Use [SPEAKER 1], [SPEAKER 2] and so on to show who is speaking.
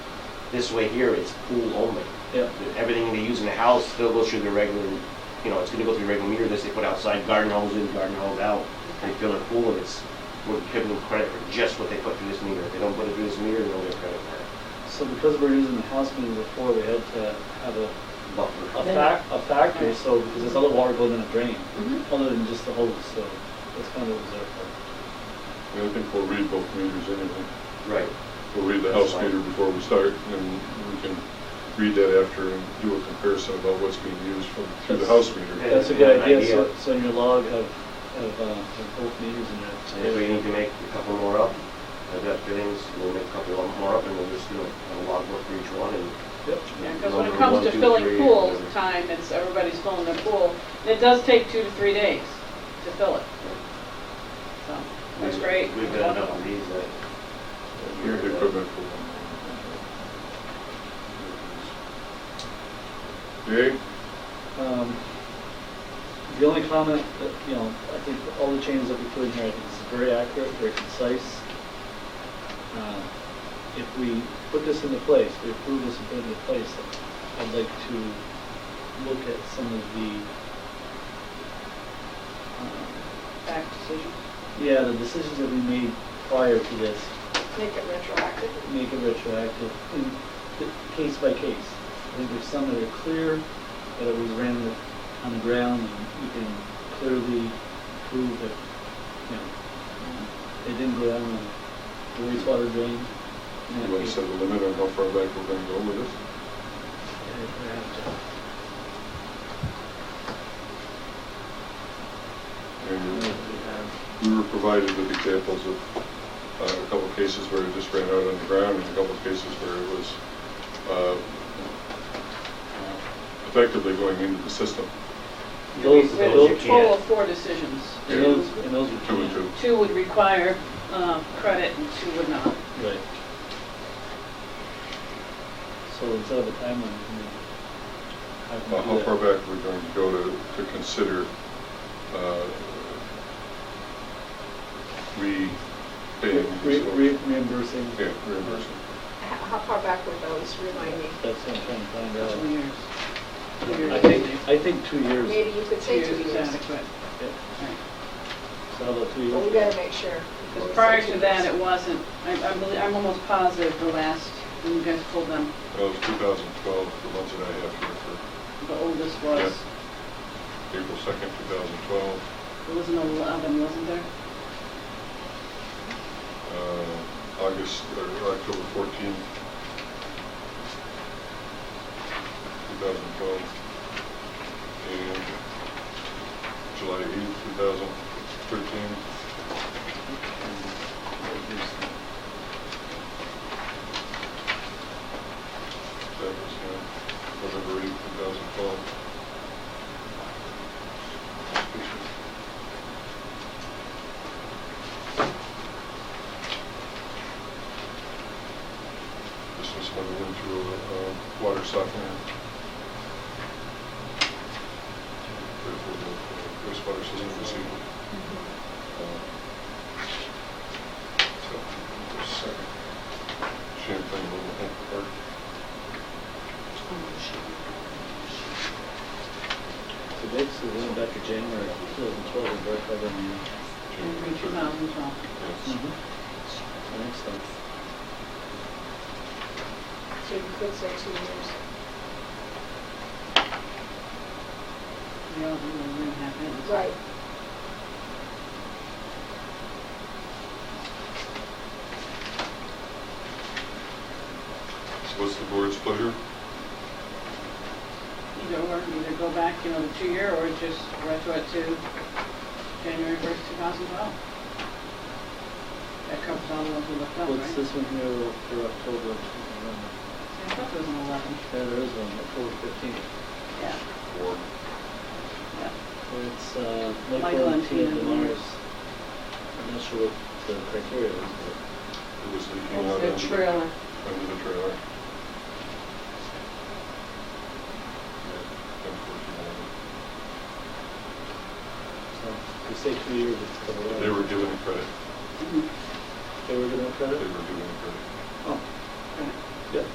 [SPEAKER 1] This way here, it's pool only.
[SPEAKER 2] Yeah.
[SPEAKER 1] Everything they use in the house still goes through the regular, you know, it's gonna go through the regular meter, this they put outside, garden hose in, garden hose out, and fill their pool, and it's, we're giving them credit for just what they put through this meter. If they don't put it through this meter, they'll get credit for
[SPEAKER 2] So because we're using the house meter before, we had to have a,
[SPEAKER 1] it.
[SPEAKER 2] a
[SPEAKER 1] Buffer.
[SPEAKER 2] fac, a factor, so, because this other water goes in a drain,
[SPEAKER 3] Mhm.
[SPEAKER 2] other than just the hose, so that's kind of what was there for.
[SPEAKER 4] I think we'll read both meters anyway.
[SPEAKER 1] Right.
[SPEAKER 4] We'll read the house meter before we start, and we can read that after and do a comparison about what's being used from, through the house meter.
[SPEAKER 1] Yeah.
[SPEAKER 2] That's a good
[SPEAKER 1] An
[SPEAKER 2] idea, so,
[SPEAKER 1] idea.
[SPEAKER 2] so in your log have, have, uh, have both meters in
[SPEAKER 1] And if
[SPEAKER 2] there.
[SPEAKER 1] we need to make a couple more up, I've got fittings, we'll make a couple of more up, and we'll just do a log book for each one, and
[SPEAKER 2] Yep.
[SPEAKER 3] Because when it
[SPEAKER 1] Number
[SPEAKER 3] comes
[SPEAKER 1] one,
[SPEAKER 3] to
[SPEAKER 1] two,
[SPEAKER 3] filling
[SPEAKER 1] three,
[SPEAKER 3] pools
[SPEAKER 1] whatever.
[SPEAKER 3] time, it's, everybody's filling their pool. And It does take two to three days to fill it. So, that's
[SPEAKER 1] We've-
[SPEAKER 3] great.
[SPEAKER 1] We've done enough of these that.
[SPEAKER 4] Your equipment for Okay,
[SPEAKER 2] Um, The only comment that, you know, I think all the changes that we put in here, I think is very accurate, very concise. Uh, If we put this into place, we approve this and put it into place, I'd like to look at some of the, uh,
[SPEAKER 3] Back decision.
[SPEAKER 2] yeah, the decisions that we made prior to this,
[SPEAKER 3] Make it retroactive.
[SPEAKER 2] make it retroactive, in the- case by case. I think there's some that are clear, that it was ran the- on the ground, and you can clearly prove that, you know, um, it didn't go down the wastewater drain. And that
[SPEAKER 4] you want to
[SPEAKER 2] case,
[SPEAKER 4] set a limit on how far back we're going to go with this?
[SPEAKER 2] uh, perhaps, uh,
[SPEAKER 4] And
[SPEAKER 2] we have-
[SPEAKER 4] we were provided with examples of uh, a couple of cases where it just ran out on the ground, and a couple of cases where it was uh, effectively going into the system.
[SPEAKER 2] Those-
[SPEAKER 1] Those
[SPEAKER 3] There's
[SPEAKER 1] you
[SPEAKER 3] a total
[SPEAKER 1] can't.
[SPEAKER 3] of four decisions.
[SPEAKER 2] And those, and those were.
[SPEAKER 4] Two and two.
[SPEAKER 3] Two would require um, credit and two would not.
[SPEAKER 2] Right. So instead of a timeline, you know, how can we
[SPEAKER 4] Uh,
[SPEAKER 2] do
[SPEAKER 4] How
[SPEAKER 2] that?
[SPEAKER 4] far back we're going to go to, to consider uh, re paying?
[SPEAKER 2] Re- re- Reimbursing.
[SPEAKER 4] Yeah, reimbursement.
[SPEAKER 5] How far back were those, remind me?
[SPEAKER 2] That's what I'm trying to find out.
[SPEAKER 3] Two years. Two years.
[SPEAKER 2] Uh, I think, I think two years.
[SPEAKER 5] Maybe you could
[SPEAKER 3] Two
[SPEAKER 5] say two
[SPEAKER 3] years is
[SPEAKER 5] years,
[SPEAKER 3] adequate.
[SPEAKER 2] Yeah.
[SPEAKER 3] Right.
[SPEAKER 2] So how about two
[SPEAKER 5] but we
[SPEAKER 2] years?
[SPEAKER 5] gotta make sure.
[SPEAKER 3] Because prior to that, it wasn't, I, I believe, I'm almost positive the last, when you guys pulled them,
[SPEAKER 4] That was 2012, the ones that I have here for
[SPEAKER 3] the oldest was,
[SPEAKER 4] April 2nd, 2012.
[SPEAKER 3] there was an eleven, wasn't there?
[SPEAKER 4] uh, August, or October 14th, 2012, and July 8th, 2013. That was, uh, November 8th, 2012. This was when we went through a water softener. Therefore, the wastewater system was even. So, just a second. Champlain Mobile Home Park.
[SPEAKER 2] So basically, we went back to January 2012 and brought that on the
[SPEAKER 4] Champlain
[SPEAKER 3] Two
[SPEAKER 4] Church.
[SPEAKER 3] thousand twelve.
[SPEAKER 4] Yes.
[SPEAKER 2] next time.
[SPEAKER 5] So you could say two years.
[SPEAKER 3] We all, we were gonna have it.
[SPEAKER 5] Right.
[SPEAKER 4] So what's the board's pleasure?
[SPEAKER 3] Either or, either go back, you know, the two-year or just retro it to January first, two thousand twelve. That covers all the ones we looked up, Oh, right?
[SPEAKER 2] What's this one here for October? Yeah,
[SPEAKER 3] I thought there was an eleven.
[SPEAKER 2] there is one, October 15th.
[SPEAKER 3] Yeah,
[SPEAKER 4] Or
[SPEAKER 3] yeah.
[SPEAKER 2] So it's uh, Michael
[SPEAKER 3] Michael
[SPEAKER 2] and
[SPEAKER 3] and
[SPEAKER 2] Tina
[SPEAKER 3] Tina
[SPEAKER 2] Demars.
[SPEAKER 3] Demars.
[SPEAKER 2] I'm not sure what the criteria is, but
[SPEAKER 4] it was leaking out under,
[SPEAKER 3] It's the trailer.
[SPEAKER 4] under the trailer? Yeah, Unfortunately.
[SPEAKER 2] so we say two years, it's covered.
[SPEAKER 4] They were given credit.
[SPEAKER 3] Mhm.
[SPEAKER 2] They were given
[SPEAKER 4] They were
[SPEAKER 2] credit?
[SPEAKER 4] given credit.
[SPEAKER 2] Oh.